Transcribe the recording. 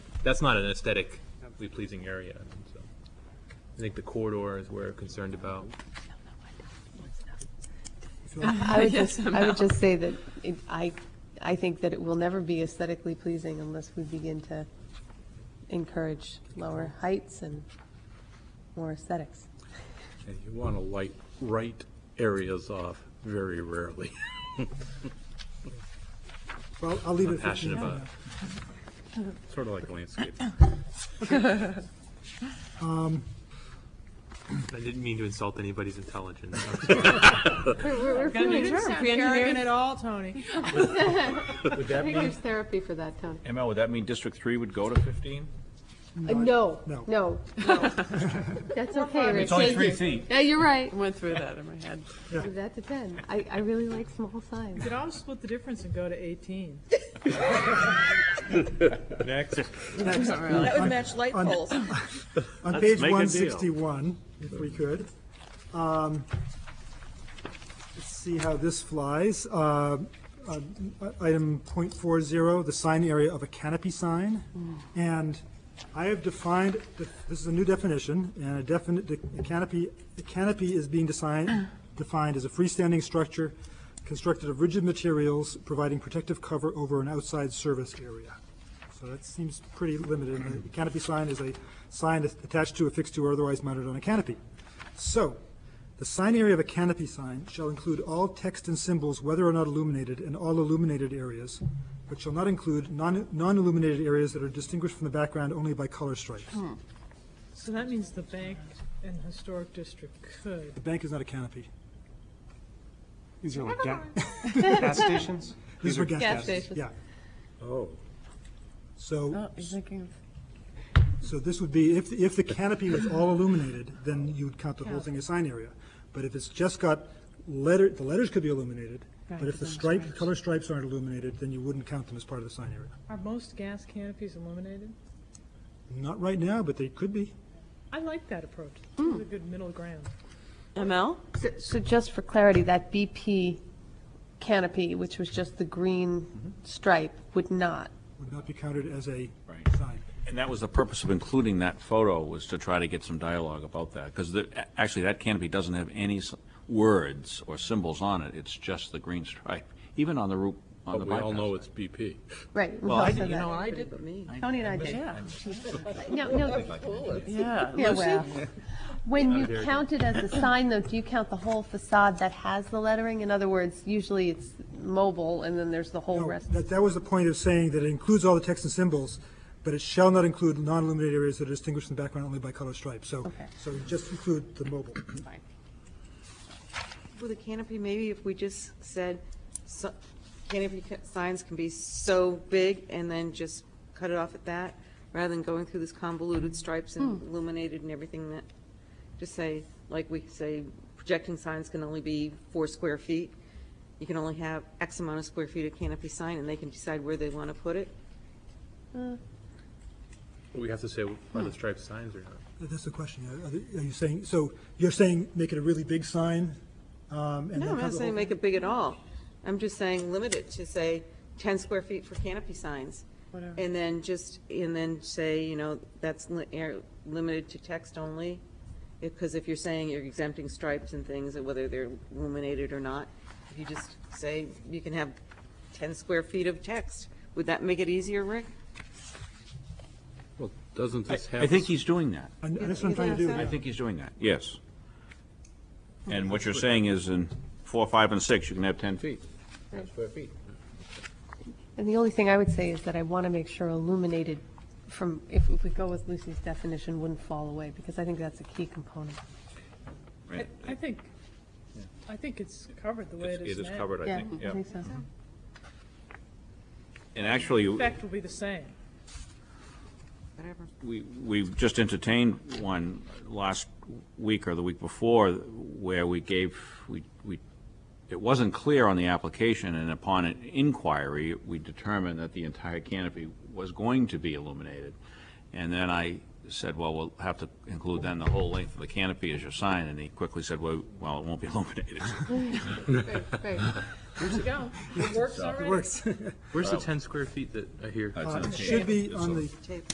that's not an aesthetically pleasing area. So I think the corridor is where we're concerned about. I would Yes, just, I would just say that it, I, I think that it will never be aesthetically pleasing unless we begin to encourage lower heights and more aesthetics. And you want to light, write areas off very rarely. Well, I'll leave it at passionate 59 about now. Sort of like landscape. I didn't mean to insult anybody's intelligence. Arrogant at all, Tony. Would that I think mean, there's therapy for that, Tony. Uh, ML, would that mean District Three would go to fifteen? No, no, No. no. That's okay, It's only Rich. three feet. Yeah, you're right. Went through that in my head. That depends. I, I really like small signs. Could always split the difference and go to 18. Next. That would match light poles. On page make a deal. 161, if we could. um, Let's see how this flies. Uh, uh, Item .40, the sign area of a canopy sign. And I have defined, this is a new definition, and a definite, the canopy, the canopy is being designed, defined as a freestanding structure constructed of rigid materials providing protective cover over an outside service area. So that seems pretty limited. And The canopy sign is a sign that's attached to, affixed to, or otherwise mounted on a canopy. So, the sign area of a canopy sign shall include all text and symbols, whether or not illuminated, and all illuminated areas, but shall not include non- non-illuminated areas that are distinguished from the background only by color stripes. So that means the bank and historic district could. The bank is not a canopy. These are like ga- gas stations? These are gas gas stations. stations. Yeah. Oh, So, Oh, You're thinking so this would be, if, if the canopy was all illuminated, then you'd count the whole thing as sign area. But if it's just got letter, the letters could be illuminated, but if the stripes, color stripes aren't illuminated, then you wouldn't count them as part of the sign area. Are most gas canopies illuminated? Not right now, but they could be. I like that approach. It's a good middle ground. ML? So just for clarity, that BP canopy, which was just the green stripe, would not. would not be counted as a Right. sign. And that was the purpose of including that photo, was to try to get some dialogue about that. Because actually, that canopy doesn't have any s- words or symbols on it. It's just the green stripe, even on the route, on the but we all know bypass. it's BP. Right. Well, I did- also you that. know, I did, Tony and I did. Yeah. No, no, Yeah. yeah, well. When you count it as a sign, though, do you count the whole facade that has the lettering? In other words, usually it's mobile, and then there's the whole No, rest. That, that was the point of saying that it includes all the text and symbols, but it shall not include non-illuminated areas that are distinguished in the background only by color stripes. So, Okay. so just include the mobile. With a canopy, maybe if we just said, so- canopy ca- signs can be so big and then just cut it off at that, rather than going through this convoluted stripes and illuminated and everything that, just say, like we say, projecting signs can only be four square feet. You can only have X amount of square feet of canopy sign, and they can decide where they want to put it. We have to say are the striped signs or not. That's the question. Are- Are the- are you saying, so you're saying make it a really big sign? um, No, No, I'm not saying make it big at all. I'm just saying limit it to say 10 square feet for canopy signs. And then just, and then say, you know, that's li- air- limited to text only. Because if you're saying you're exempting stripes and things, and whether they're illuminated or not, if you just say you can have 10 square feet of text, would that make it easier, Rick? Well, doesn't this have? I think he's doing that. And and that's what I'm trying to do. I think he's doing that, yes. And what you're saying is in four, five, and six, you can have 10 feet. And the only thing I would say is that I want to make sure illuminated from, if if we go with Lucy's definition, wouldn't fall away, because I think that's a key component. I I think, I think it's covered the way it is It now. is covered, I Yeah, think, I yeah. think so. And actually, Effect will be the same. Whatever. we, we've just entertained one last week or the week before where we gave, we, we, it wasn't clear on the application, and upon an inquiry, we determined that the entire canopy was going to be illuminated. And then I said, well, we'll have to include then the whole length of the canopy as your sign, and he quickly said, well, well, it won't be illuminated. Here you go. It works already. Works. Where's the 10 square feet that I hear? It's in the Should be table. on the